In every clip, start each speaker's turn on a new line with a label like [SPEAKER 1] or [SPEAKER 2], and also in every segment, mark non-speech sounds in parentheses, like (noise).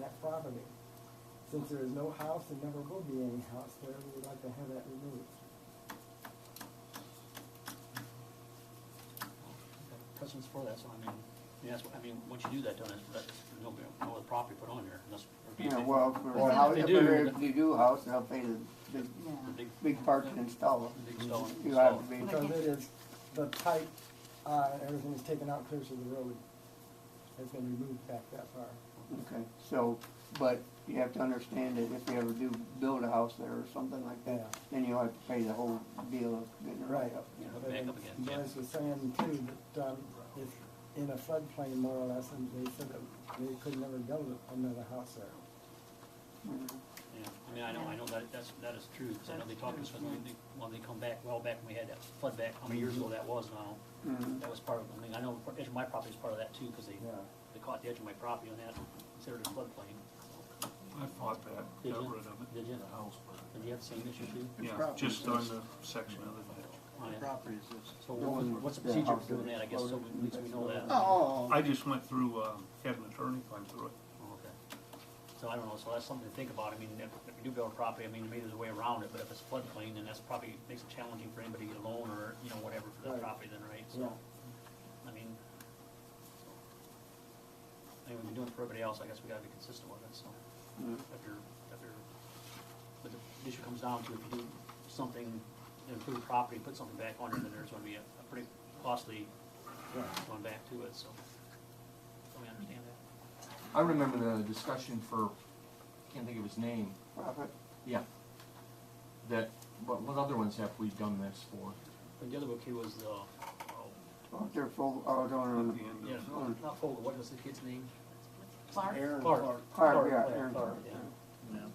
[SPEAKER 1] that property. Since there is no house and never will be any house there, we would like to have that removed.
[SPEAKER 2] Precedence for that, so I mean, yeah, that's, what- I mean, once you do that, don't, that's, that's, no, no other property put on there unless. or be a
[SPEAKER 3] Yeah,
[SPEAKER 2] big-
[SPEAKER 3] well, for
[SPEAKER 2] Well,
[SPEAKER 3] a house,
[SPEAKER 2] they
[SPEAKER 3] if
[SPEAKER 2] do,
[SPEAKER 3] they're-
[SPEAKER 2] but-
[SPEAKER 3] if you do a house, they'll pay the big,
[SPEAKER 2] a Big,
[SPEAKER 3] big part to install
[SPEAKER 2] a big
[SPEAKER 3] it.
[SPEAKER 2] stone.
[SPEAKER 3] You have
[SPEAKER 2] stone.
[SPEAKER 3] to be,
[SPEAKER 1] Because it is, the pipe, uh, everything is taken out close to the road. It's been removed back that far.
[SPEAKER 3] okay, so, but you have to understand that if you ever do build a house there or something like
[SPEAKER 1] Yeah.
[SPEAKER 3] that, then you'll have to pay the whole deal of getting it
[SPEAKER 1] Right.
[SPEAKER 3] right up.
[SPEAKER 2] Yeah,
[SPEAKER 1] But
[SPEAKER 2] back up again, yeah.
[SPEAKER 1] Joyce was saying too, that, um, it's in a floodplain more or less, and they said that they could never build another house there.
[SPEAKER 3] Mhm.
[SPEAKER 2] Yeah, I mean, I know, I know that, that's, that is true, because I know they talked to us when they, when they come back, well, back when we had that flood back, how many years ago that was now.
[SPEAKER 3] Mhm.
[SPEAKER 2] That was part of, I mean, I know, edge of my property is part of that too, because they,
[SPEAKER 1] Yeah.
[SPEAKER 2] they caught the edge of my property on that, considered a floodplain.
[SPEAKER 4] I fought that,
[SPEAKER 2] Did
[SPEAKER 4] got
[SPEAKER 2] you?
[SPEAKER 4] rid of it.
[SPEAKER 2] Did you?
[SPEAKER 4] The house, but,
[SPEAKER 2] Did you have the same issue too?
[SPEAKER 4] yeah,
[SPEAKER 5] property
[SPEAKER 4] just on the section of the ditch.
[SPEAKER 2] Oh, yeah.
[SPEAKER 5] property is this?
[SPEAKER 2] So what was- what's the
[SPEAKER 3] The
[SPEAKER 2] procedure
[SPEAKER 3] house
[SPEAKER 2] for doing
[SPEAKER 3] that
[SPEAKER 2] that, I guess, so we- at least we know that.
[SPEAKER 5] Oh,
[SPEAKER 4] I just went through, uh, had an attorney come through it.
[SPEAKER 2] Oh, okay. So I don't know, so that's something to think about, I mean, if, if you do build a property, I mean, maybe there's a way around it, but if it's floodplain, then that's probably makes it challenging for anybody to get a loan or, you know, whatever for that
[SPEAKER 1] Right.
[SPEAKER 2] property then, right?
[SPEAKER 1] Yeah.
[SPEAKER 2] So, I mean, so. I mean, we've been doing it for everybody else, I guess we gotta be consistent with it, so,
[SPEAKER 3] Mhm.
[SPEAKER 2] if you're, if you're, but the issue comes down to if you do something, improve property, put something back on it, then there's gonna be a, a pretty costly
[SPEAKER 1] Yeah.
[SPEAKER 2] going back to it, so, so we understand that.
[SPEAKER 6] I remember the discussion for, can't think of his name,
[SPEAKER 3] Profit,
[SPEAKER 6] yeah. That, what, what other ones have we done this for?
[SPEAKER 2] And the other book here was the, oh,
[SPEAKER 3] well, they're full, oh,
[SPEAKER 4] At
[SPEAKER 3] don't,
[SPEAKER 4] the end of-
[SPEAKER 2] yeah,
[SPEAKER 3] Mm.
[SPEAKER 2] not Fogel, what was the kid's name?
[SPEAKER 7] Clark?
[SPEAKER 5] Aaron
[SPEAKER 2] Clark.
[SPEAKER 5] Clark.
[SPEAKER 3] Clark, yeah,
[SPEAKER 2] yeah,
[SPEAKER 3] Aaron
[SPEAKER 2] Clark,
[SPEAKER 3] Clark,
[SPEAKER 2] yeah.
[SPEAKER 5] Yeah.
[SPEAKER 2] Yeah.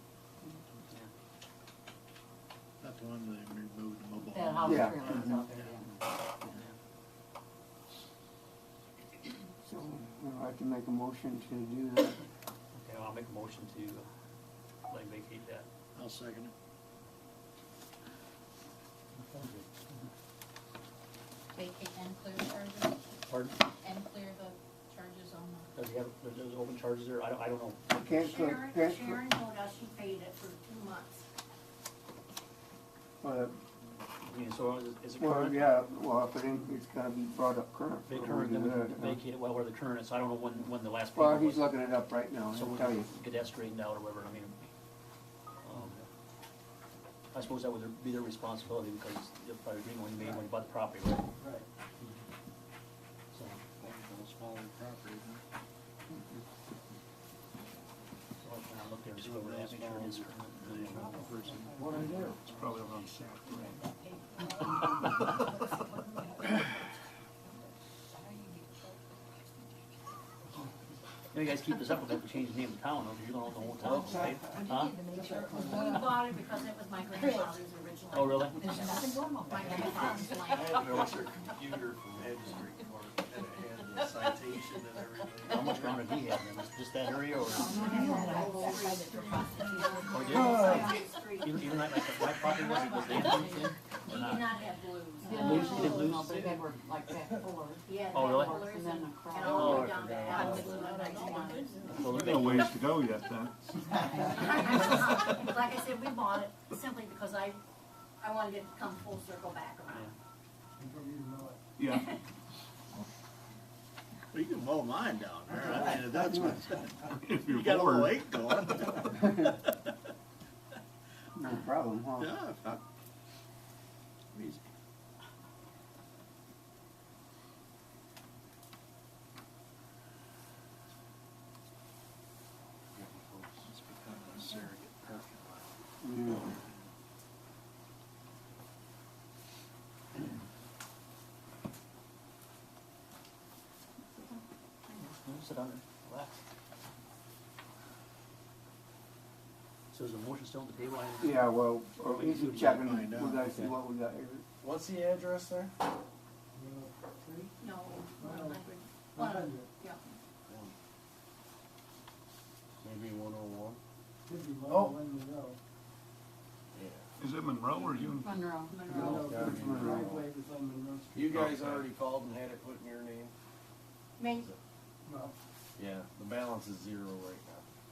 [SPEAKER 5] Not the one that removed the mobile
[SPEAKER 7] That
[SPEAKER 5] home.
[SPEAKER 7] house
[SPEAKER 3] Yeah.
[SPEAKER 7] trailer is out there, yeah.
[SPEAKER 3] so we'll have to make a motion to do that.
[SPEAKER 2] Okay, well, I'll make a motion to, uh, like, vacate that.
[SPEAKER 5] I'll second it.
[SPEAKER 1] Thank you.
[SPEAKER 7] Vacate and clear charges,
[SPEAKER 2] Pardon?
[SPEAKER 7] and clear the charges on the.
[SPEAKER 2] Does he have, there's, there's open charges there? I don't, I don't know.
[SPEAKER 3] Can't, cl-
[SPEAKER 8] Sharon,
[SPEAKER 3] can't, cl-
[SPEAKER 8] Sharon told us she paid it for two months.
[SPEAKER 3] well,
[SPEAKER 2] I mean, so is it- is it
[SPEAKER 3] well,
[SPEAKER 2] current?
[SPEAKER 3] yeah, well, if it ain't, it's gotta be brought up current.
[SPEAKER 2] They
[SPEAKER 3] for
[SPEAKER 2] current,
[SPEAKER 3] when
[SPEAKER 2] then
[SPEAKER 3] we
[SPEAKER 2] we
[SPEAKER 3] do
[SPEAKER 2] can
[SPEAKER 3] that, yeah.
[SPEAKER 2] vacate it, well, where the current is, I don't know when, when the last.
[SPEAKER 3] Well,
[SPEAKER 2] paper
[SPEAKER 3] he's
[SPEAKER 2] was.
[SPEAKER 3] looking it up right now,
[SPEAKER 2] So
[SPEAKER 3] I'll
[SPEAKER 2] we
[SPEAKER 3] tell you.
[SPEAKER 2] get that straightened out or whatever, I mean, um, I suppose that would be their responsibility because they'll probably agree when they made, when they bought the property, right?
[SPEAKER 1] Right.
[SPEAKER 2] So,
[SPEAKER 5] Smaller property, huh?
[SPEAKER 2] so I kind of looked there and see where that picture is.
[SPEAKER 1] What I do?
[SPEAKER 4] It's probably around six grand.
[SPEAKER 2] You guys keep this up, we'll have to change the name of town, or you're gonna own the whole town, right? Huh?
[SPEAKER 8] We bought it because it was my grandfather's original.
[SPEAKER 2] Oh, really?
[SPEAKER 7] There's nothing going on.
[SPEAKER 8] My grandfather's land.
[SPEAKER 9] I had to watch a computer from registry court, and it had the citation and everything.
[SPEAKER 2] How much ground did he have, then? just that area, or
[SPEAKER 8] Or
[SPEAKER 2] did? even, even like, like, my property wasn't, was there?
[SPEAKER 8] He did not have blues.
[SPEAKER 2] Lose- did lose
[SPEAKER 7] No, but
[SPEAKER 2] it?
[SPEAKER 7] They were like that fuller.
[SPEAKER 8] He had
[SPEAKER 2] Oh, really?
[SPEAKER 8] blues
[SPEAKER 7] And then
[SPEAKER 8] and
[SPEAKER 7] the crowd.
[SPEAKER 8] and all the way
[SPEAKER 9] Oh,
[SPEAKER 8] down to
[SPEAKER 9] I
[SPEAKER 8] Alabama.
[SPEAKER 2] Well,
[SPEAKER 4] There's
[SPEAKER 2] they're
[SPEAKER 4] no
[SPEAKER 2] big.
[SPEAKER 4] ways to go yet
[SPEAKER 5] (laughs)
[SPEAKER 4] then.
[SPEAKER 8] (laughs) Like I said, we bought it simply because I, I wanted it to come full circle back around.
[SPEAKER 4] Yeah,
[SPEAKER 5] Well, you can mow mine down there, I mean, if that's what,
[SPEAKER 4] if
[SPEAKER 5] (laughs) you
[SPEAKER 4] you're
[SPEAKER 5] got a little
[SPEAKER 4] bored,
[SPEAKER 5] lake going,
[SPEAKER 3] No problem, huh?
[SPEAKER 5] yeah, if not. Easy.
[SPEAKER 9] It's become a surrogate parking lot.
[SPEAKER 3] Yeah.
[SPEAKER 2] Sit down and relax. So is the motion still on the table? I-
[SPEAKER 3] Yeah, well, uh,
[SPEAKER 2] We
[SPEAKER 3] he's
[SPEAKER 2] can
[SPEAKER 3] checking, we
[SPEAKER 5] find out.
[SPEAKER 3] gotta see what we got here.
[SPEAKER 5] What's the address there?
[SPEAKER 8] No,
[SPEAKER 1] Well,
[SPEAKER 8] one hundred.
[SPEAKER 1] One hundred,
[SPEAKER 8] Yeah.
[SPEAKER 9] Maybe one oh one?
[SPEAKER 1] could be
[SPEAKER 5] Oh.
[SPEAKER 1] more than you know.
[SPEAKER 9] Yeah.
[SPEAKER 4] is it Monroe or you?
[SPEAKER 7] Monroe.
[SPEAKER 1] No,
[SPEAKER 9] Yeah.
[SPEAKER 1] the driveway was on Monroe Street.
[SPEAKER 9] You guys already called and had it put in your name?
[SPEAKER 8] Main,
[SPEAKER 1] Well,
[SPEAKER 9] Yeah. The balance is zero right now.